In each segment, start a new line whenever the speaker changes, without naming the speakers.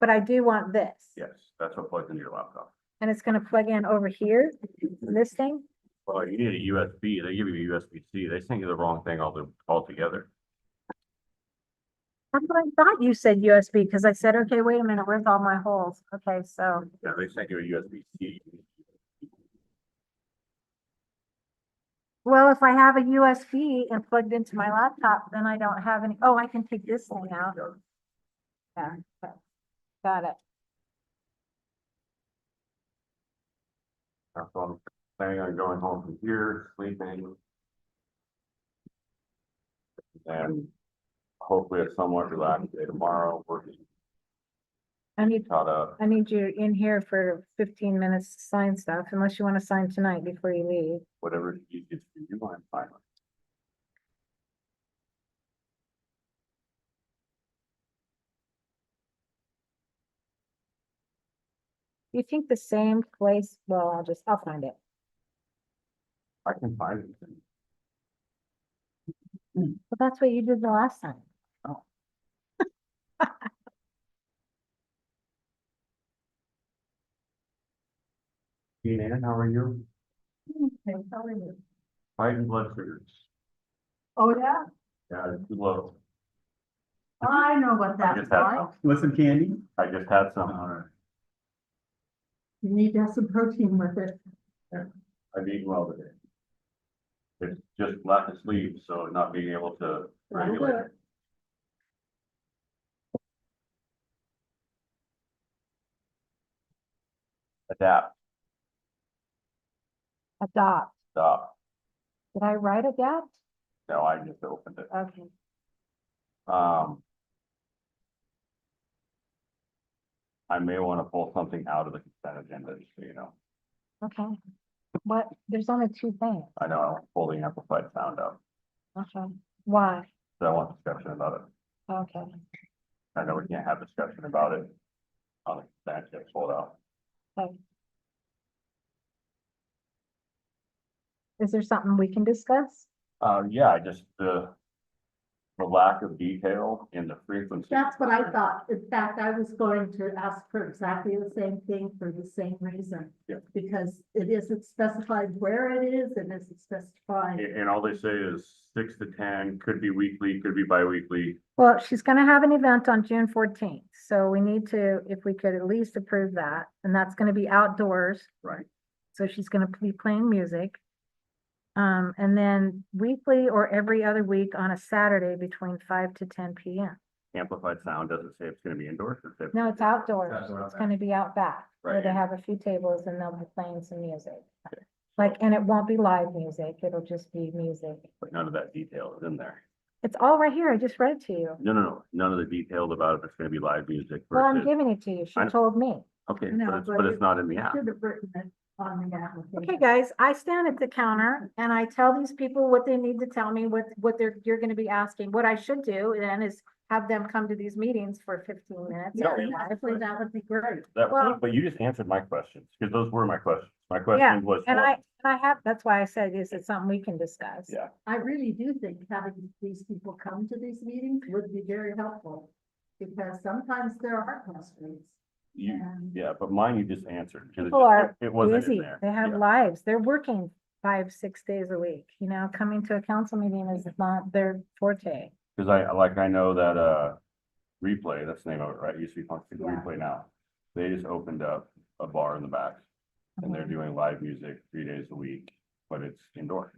but I do want this.
Yes, that's what plugs into your laptop.
And it's gonna plug in over here, this thing.
Well, you need a USB, they give you a USB C, they send you the wrong thing all the, altogether.
That's what I thought you said USB, because I said, okay, wait a minute, where's all my holes? Okay, so,
Yeah, they send you a USB C.
well, if I have a USB and plugged into my laptop, then I don't have any, oh, I can take this thing out. Yeah, okay. got it.
So I'm planning on going home from here, sleeping. And hopefully a somewhat relaxed day tomorrow, working
I need,
caught up.
I need you in here for fifteen minutes to sign stuff, unless you want to sign tonight before you leave.
whatever you did for you, I'm fine with.
You think the same place, well, I'll just, I'll find it.
I can find it.
But that's what you did the last time.
Oh. Hey, Ann, how are you? Fighting blood sugars.
Oh, yeah,
Yeah, it's too low.
I know what
I just had some.
Want some candy?
I just had some. All
You need to have some protein with it.
right. I've eaten well today. It's just lack of sleep, so not being able to
That'll do
regulate. it. Adapt,
Adopt.
stop.
Did I write adapt?
No, I just opened it.
Okay.
Um. I may want to pull something out of the consent agenda, just so you know,
Okay. What, there's only two things.
I know I won't pull the amplified sound out,
Okay. Why?
so I want discussion about it.
Okay.
I know we can't have discussion about it. On the consent, agenda pulled out.
Okay. Is there something we can discuss?
Uh, yeah, I just, the. The lack of detail in the frequency.
That's what I thought. In fact, I was going to ask for exactly the same thing for the same reason.
Yeah.
Because it isn't specified where it is, it isn't
And,
specified.
and all they say is six to ten, could be weekly, could be bi-weekly.
Well, she's gonna have an event on June fourteenth, so we need to, if we could at least approve that, and that's gonna be outdoors.
Right.
So she's gonna be playing music. Um, and then weekly or every other week on a Saturday between five to ten P M.
Amplified sound doesn't say it's gonna be indoors. it says-
No, it's outdoors.
Outdoor,
It's
okay.
gonna be out back, where they
Right.
have a few tables and they'll be playing some music. Like, and it won't be live music, it'll just be music.
But none of that detail is in there.
It's all right here, I just read it to you.
No, no, no, none of the details about if it's gonna be live music
Well, I'm
versus,
giving it to you, she
I-
told me.
okay,
No,
but it's,
but
but it's
it-
not in the app.
Should have written it on the application.
Okay, guys, I stand at the counter and I tell these people what they need to tell me, what, what they're, you're gonna be asking. What I should do then is have them come to these meetings for fifteen minutes.
No,
every
you-
night.
Actually, that would be great.
That-
well-
but you just answered my questions, because those were my questions. My question was.
And
what-
I, and I have, that's why I said, is it something we can discuss?
Yeah.
I really do think having these people come to these meetings would be very helpful. Because sometimes there are constraints.
You,
and-
yeah, but mine you just answered. 'cause it
People
just-
are
It wasn't in
Busy,
there.
they have
Yeah.
lives, they're working five, six days a week, you know, coming to a council meeting is not their forte.
Cause I, like, I know that, uh, replay, that's the name of it, right? It Used to be called replay now. They just opened up a bar in the back and
Uh-huh.
they're doing live music three days a week, but it's indoor.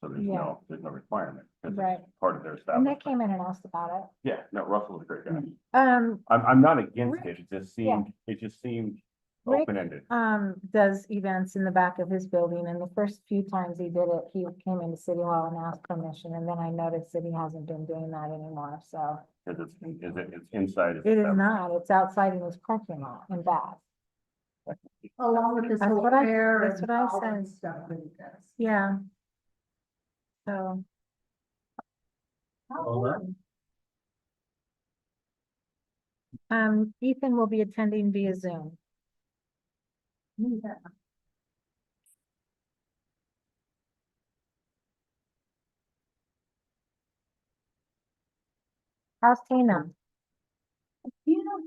So there's
Yeah.
no, there's no requirement. 'cause it's
Right.
Part of their
And they
establishment.
came in and asked about
Yeah, no, Russell's a great guy.
it. Um,
I'm, I'm not against
Rick-
it. It just
yeah.
seemed, it just seemed
Rick-
open-ended.
um, does events in the back of his building, and the first few times he did it, he came into City Hall and asked permission, and then I noticed that he hasn't been doing that anymore, so.
Cause it's, is it, it's inside. it's
It is
outside.
not, it's outside in his parking lot in back.
Along with this
That's
whole
what I-
air
that's
and
what I
all that
said.
stuff that it does.
Yeah. So,
Well done.
um, Ethan will be attending via Zoom.
Yeah.
How's Tina?